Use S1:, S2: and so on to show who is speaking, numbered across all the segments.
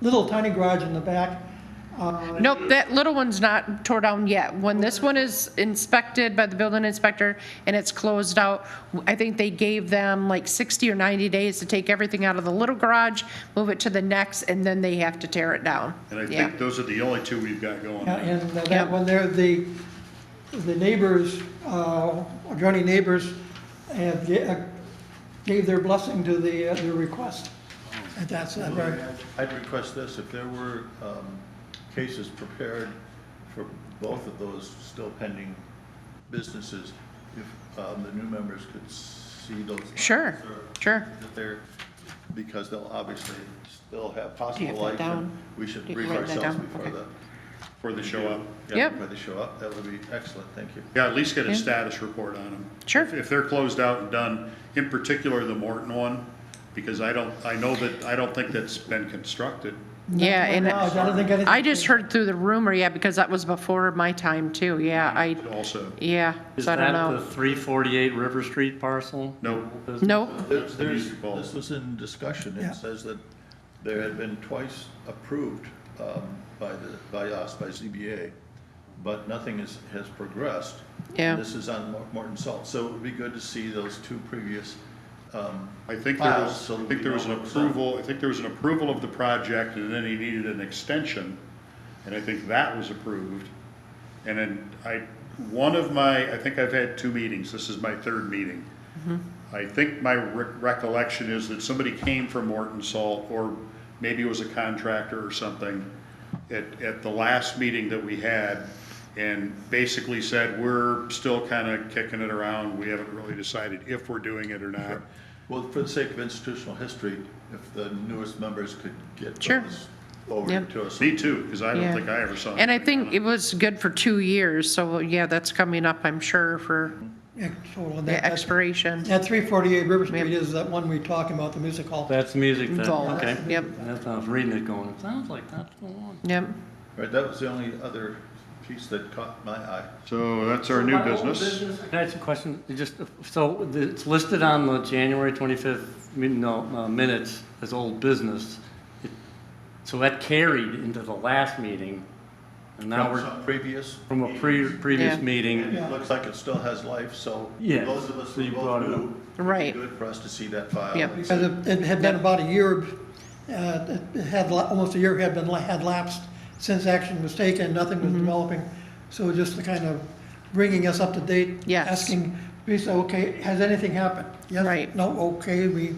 S1: little tiny garage in the back. Uh,
S2: Nope, that little one's not tore down yet. When this one is inspected by the building inspector and it's closed out, I think they gave them like 60 or 90 days to take everything out of the little garage, move it to the next, and then they have to tear it down.
S3: And I
S2: Yeah.
S3: think those are the only two we've got going.
S1: Yeah, And uh,
S2: Yeah.
S1: that one there, the, the neighbors, uh, adjoining neighbors had, ga- uh, gave their blessing to the, uh, the request. And that's, uh, very-
S4: I'd request this, if there were um, cases prepared for both of those still pending businesses, if um, the new members could see those.
S2: Sure, sure.
S4: That they're, because they'll obviously still have
S2: have
S4: possible
S2: that
S4: life. and
S2: down?
S4: We should
S2: Do you
S4: brief
S2: write that
S4: ourselves
S2: down?
S4: before
S2: Okay.
S4: the.
S3: Before they show up.
S4: Yeah,
S2: Yep.
S4: Before they show up, that would be excellent, thank you.
S3: Yeah, at least get
S2: Yeah.
S3: a status report on them.
S2: Sure.
S3: If- If they're closed out and done, in particular the Morton one, because I don't, I know that, I don't think that's been constructed.
S2: Yeah, and
S1: No, I don't think anything-
S2: I just heard through the rumor, yeah, because that was before my time too, yeah, I,
S3: Also,
S2: yeah,
S5: Is
S2: so I don't
S5: that the
S2: know.
S5: 348 River Street parcel?
S3: no,
S2: Nope,
S4: There's, there's,
S3: Music Bowl.
S4: this was in discussion,
S1: Yeah.
S4: it says that there had been twice approved um, by the, by us, by ZBA, but nothing is, has progressed.
S2: Yeah.
S4: This is on Mor- Morton Salt, so it would be good to see those two previous, um,
S3: I think there
S4: Files,
S3: was,
S4: so
S3: I
S4: we
S3: think there was an
S4: know what's up.
S3: approval, I think there was an approval of the project and then he needed an extension. And I think that was approved. And then I, one of my, I think I've had two meetings, this is my third meeting. I think my re- recollection is that somebody came from Morton Salt, or maybe it was a contractor or something, at, at the last meeting that we had, and basically said, we're still kind of kicking it around, we haven't really decided if we're doing it or not.
S4: well, for the sake of institutional history, if the newest members could get
S2: Sure.
S4: those over
S2: Yeah.
S4: to us.
S3: Me too, because I don't
S2: Yeah.
S3: think I ever saw.
S2: and I
S3: anything on
S2: think it
S3: it.
S2: was good for two years, so yeah, that's coming up, I'm sure, for
S1: yeah, total. And
S2: the
S1: that- that's-
S2: expiration.
S1: That three forty-eight River Street
S2: Yeah.
S1: is that one we talking about, the music hall.
S5: That's music then,
S2: Involved,
S5: okay.
S2: yep.
S5: That's, I was reading it going, it sounds like that's the one.
S2: Yep.
S4: Right, that was the only other piece that caught my eye.
S3: So that's our new
S5: My old
S3: business.
S5: Can I ask you a question? It Just, so the- it's listed on the January 25th, min- no, uh, minutes as old business. It- So that carried into the last meeting, and now
S4: From
S5: we're,
S4: some previous.
S5: from a pre, previous
S2: Yeah.
S4: And
S5: meeting.
S4: it looks like it still has life, so
S5: Yeah,
S4: those of us
S5: so
S4: who
S5: you brought
S4: both
S5: it up.
S4: knew.
S2: Right.
S4: Good for us to see that file.
S2: Yep.
S1: Because it it had been about a year, uh, it had, la- almost a year had been, had lapsed since action was taken, nothing
S2: Mm-hmm.
S1: was developing. So just the kind of bringing us up to date.
S2: Yes.
S1: Asking, we say, okay, has anything happened? Yes,
S2: Right.
S1: No, okay, we,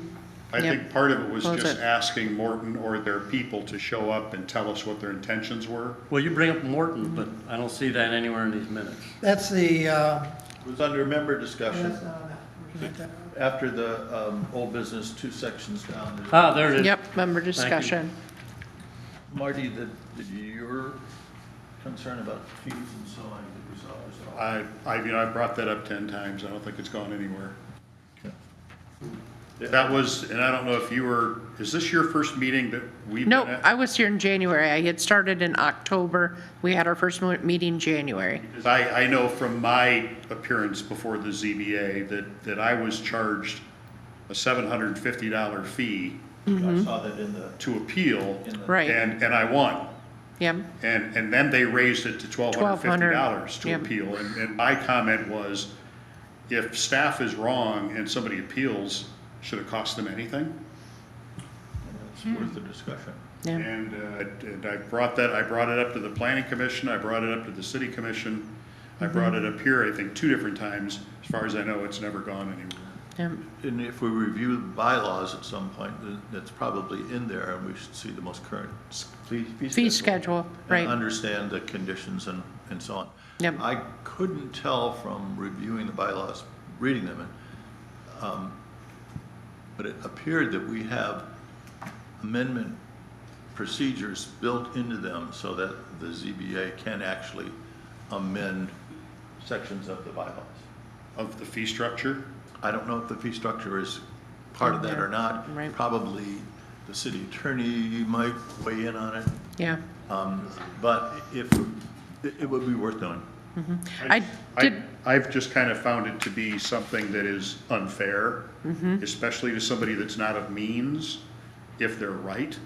S3: I
S2: Yep.
S3: think part of it was
S2: Close
S3: just
S2: it.
S3: asking Morton or their people to show up and tell us what their intentions were.
S5: Well, you bring up Morton, but I don't see that anywhere in these minutes.
S1: that's the, uh,
S4: It was under member discussion.
S1: that's not- forget that.
S4: After the um, old business, two sections down. there's-
S5: Ah, there it is.
S2: Yep, member discussion.
S4: Marty, the, the- your concern about fees and so on, did we solve this? all?
S3: I, I, you know, I brought that up ten times. I don't think it's gone anywhere.
S4: Okay.
S3: That was, and I don't know if you were, is this your first meeting that we've been
S2: Nope,
S3: at?
S2: I was here in January. I had started in October. We had our first mo- meeting January.
S3: 'Cause I, I know from my appearance before the ZBA that, that I was charged a seven hundred and fifty dollar fee
S2: Mm-hmm.
S4: I saw that in the,
S3: to appeal.
S4: in the.
S2: Right.
S3: And, and I won.
S2: Yep,
S3: And, and then they raised it to twelve hundred fifty dollars to
S2: yep.
S3: appeal. And, and my comment was, if staff is wrong and somebody appeals, should it cost them anything?
S2: Hmm.
S4: It's worth the discussion.
S2: yeah,
S3: And, uh, and I brought that, I brought it up to the planning commission, I brought it up to the city commission, I
S2: Mm-hmm.
S3: brought it up here, I think, two different times. As far as I know, it's never gone anywhere.
S2: yep.
S4: And if we review the bylaws at some point, then that's probably in there, and we should see the most current s- fee schedule.
S2: Fee schedule, right.
S4: And understand the conditions and, and so on.
S2: Yep.
S4: I couldn't tell from reviewing the bylaws, reading them, and, um, but it appeared that we have amendment procedures built into them so that the ZBA can actually amend sections of the bylaws.
S3: Of the fee structure,
S4: I don't know if the fee structure is part of that or not.
S2: Right.
S4: Probably the city attorney might weigh in on it,
S2: yeah.
S4: um, but if, it it would be worth knowing.
S2: I did,
S3: I've just kind of found it to be something that is
S2: Mm-hmm.
S3: unfair, especially to somebody that's not of means, if they're right.